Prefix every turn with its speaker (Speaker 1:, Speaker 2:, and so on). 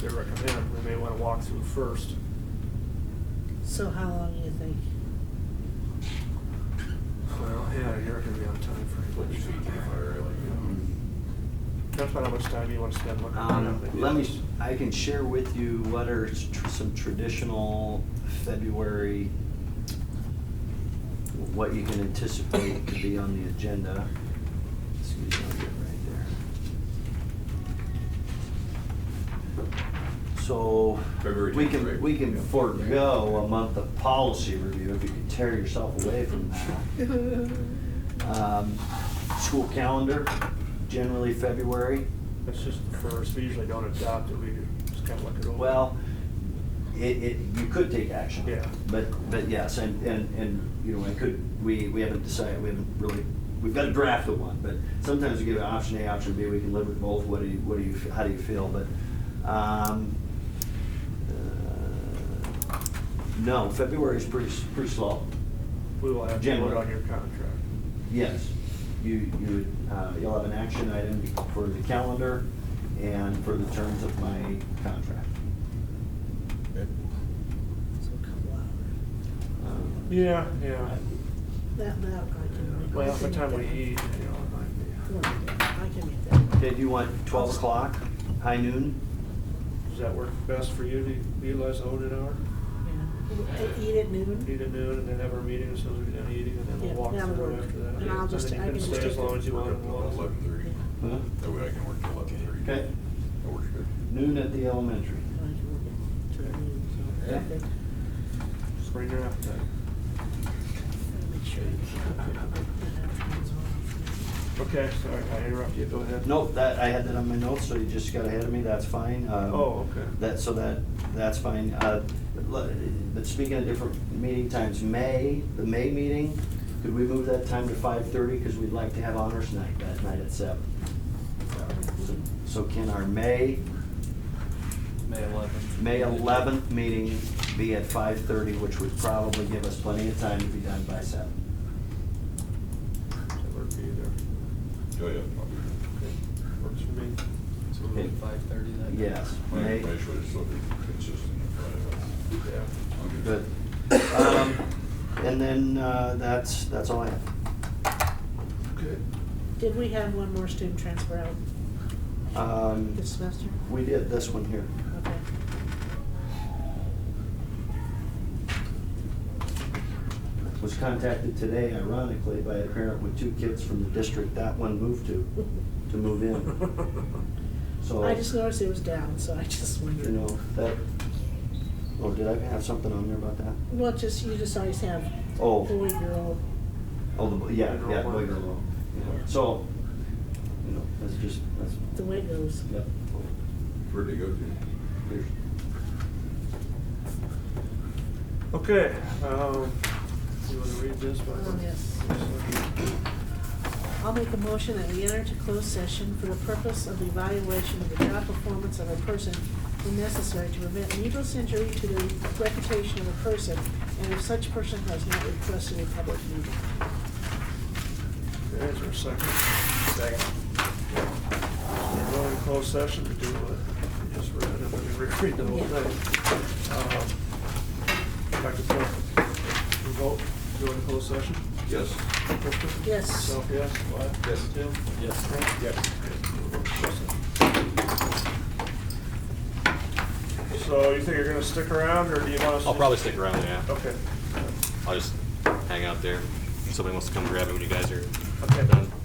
Speaker 1: they recommend, we may wanna walk through first.
Speaker 2: So how long do you think?
Speaker 1: Well, yeah, you're gonna be on time for
Speaker 3: Put your feet to the fire, like,
Speaker 1: That's about how much time you wanna spend looking
Speaker 4: Um,
Speaker 1: at it.
Speaker 4: Let me, s- I can share with you what are s- tr- some traditional February, what you can anticipate to be on the agenda. Excuse me, I'll get right there. So,
Speaker 3: February
Speaker 4: we
Speaker 3: 10th,
Speaker 4: can,
Speaker 3: right?
Speaker 4: we can
Speaker 3: Yeah.
Speaker 4: forego a month of policy review if you can tear yourself away from that. Um, School calendar, generally February.
Speaker 1: It's just the first, we usually don't adopt it, we just kinda look it over.
Speaker 4: Well, it, it, you could take action.
Speaker 1: Yeah.
Speaker 4: But, but yes, and, and, and, you know, I could, we, we haven't decided, we haven't really, we've got a draft of one, but sometimes we give an option A, option B, we can live with both, what do you, what do you, how do you feel, but, um, uh, no, February's pretty, s- pretty slow.
Speaker 1: We will have to vote
Speaker 4: January.
Speaker 1: on your contract.
Speaker 4: Yes, you, you, would, uh, you'll have an action item for the calendar and for the terms of my contract.
Speaker 2: So a couple hours.
Speaker 4: Um,
Speaker 1: Yeah, yeah.
Speaker 2: That, that I can.
Speaker 1: Well,
Speaker 2: I
Speaker 1: by
Speaker 2: can
Speaker 1: the time we
Speaker 2: make that.
Speaker 1: eat, you know, it might
Speaker 2: Come on, I can make that.
Speaker 4: Okay, do you want twelve o'clock, high noon?
Speaker 1: be- does that work best for you to utilize the audit hour?
Speaker 2: Yeah. Eat at noon?
Speaker 1: Eat at noon and then have our meeting as soon as we're done eating and then
Speaker 2: Yeah,
Speaker 1: we'll walk
Speaker 2: that would
Speaker 1: through
Speaker 2: work.
Speaker 1: after that.
Speaker 2: And I'll just-
Speaker 1: think
Speaker 2: I
Speaker 1: you
Speaker 2: can just
Speaker 1: stay as
Speaker 2: take-
Speaker 1: long as you
Speaker 3: We're
Speaker 1: want.
Speaker 3: up till eleven thirty,
Speaker 4: Huh?
Speaker 3: that way I can work till eleven thirty.
Speaker 4: Okay,
Speaker 3: That works good.
Speaker 4: noon at the elementary.
Speaker 2: Yeah.
Speaker 4: Yeah.
Speaker 1: Just bring your appetite.
Speaker 2: Make sure.
Speaker 1: Okay, sorry, I interrupted you, go ahead.
Speaker 4: Nope, that, I had that on my notes, so you just got ahead of me, that's fine. Um,
Speaker 1: Oh, okay.
Speaker 4: That, so that, that's fine. Uh, le- But speaking of different meeting times, May, the May meeting, could we move that time to five thirty? Because we'd like to have honors night that night at seven. So- So can our May,
Speaker 5: May eleventh.
Speaker 4: May eleventh meeting be at five thirty, which would probably give us plenty of time to be done by seven?
Speaker 1: Does that work for you there?
Speaker 3: Oh, yeah, I'll be here.
Speaker 1: Okay, Works for me.
Speaker 5: So we're at five thirty then?
Speaker 4: Yes.
Speaker 3: My
Speaker 4: May-
Speaker 3: information is sort of consistent. but,
Speaker 1: Yeah.
Speaker 3: uh, I'm
Speaker 4: Good. Um, And then, uh, that's, that's all I have.
Speaker 1: Okay.
Speaker 2: Did we have one more student transfer out
Speaker 4: Um,
Speaker 2: this semester?
Speaker 4: We did this one here.
Speaker 2: Okay.
Speaker 4: Was contacted today ironically by a parent with two kids from the district that one moved to, to move in. So,
Speaker 2: I just noticed it was down, so I just
Speaker 4: Oh. you
Speaker 2: wondered.
Speaker 4: know, that, oh, did I have something on there about that?
Speaker 2: Well, just, you just always have
Speaker 4: Oh.
Speaker 2: boy, girl.
Speaker 4: Oh, the, bo- yeah, yeah,
Speaker 1: Girl
Speaker 4: boy,
Speaker 1: one.
Speaker 4: girl, oh, yeah. So, you know, that's just, that's,
Speaker 2: the way it goes.
Speaker 4: yep. Oh,
Speaker 3: Where'd they go to?
Speaker 4: There's-
Speaker 1: Okay, um, you wanna read this one?
Speaker 2: Oh, yes. I'll make a motion that we enter into closed session for the purpose of evaluation of the job performance of a person when necessary to prevent needless injury to the reputation of a person, and if such person has not requested a public meeting.
Speaker 1: Okay, is there a second? Second. We're going to closed session to do what we just read, and then we reread the whole
Speaker 2: Yeah.
Speaker 1: thing. Um, Dr. Thorpe, you vote, go into closed session?
Speaker 3: Yes.
Speaker 1: Kristen?
Speaker 2: Yes.
Speaker 1: Myself, yes. Wyatt?
Speaker 3: Yes.
Speaker 1: Tim?
Speaker 5: Yes.
Speaker 1: Frank? Yes. We're going to closed session. So you think you're gonna stick around, or do you want us? to
Speaker 6: I'll probably
Speaker 1: just-
Speaker 6: stick around, yeah.
Speaker 1: Okay.
Speaker 6: I'll just hang out there. Somebody wants to come grab it when you guys are
Speaker 1: Okay.
Speaker 6: done.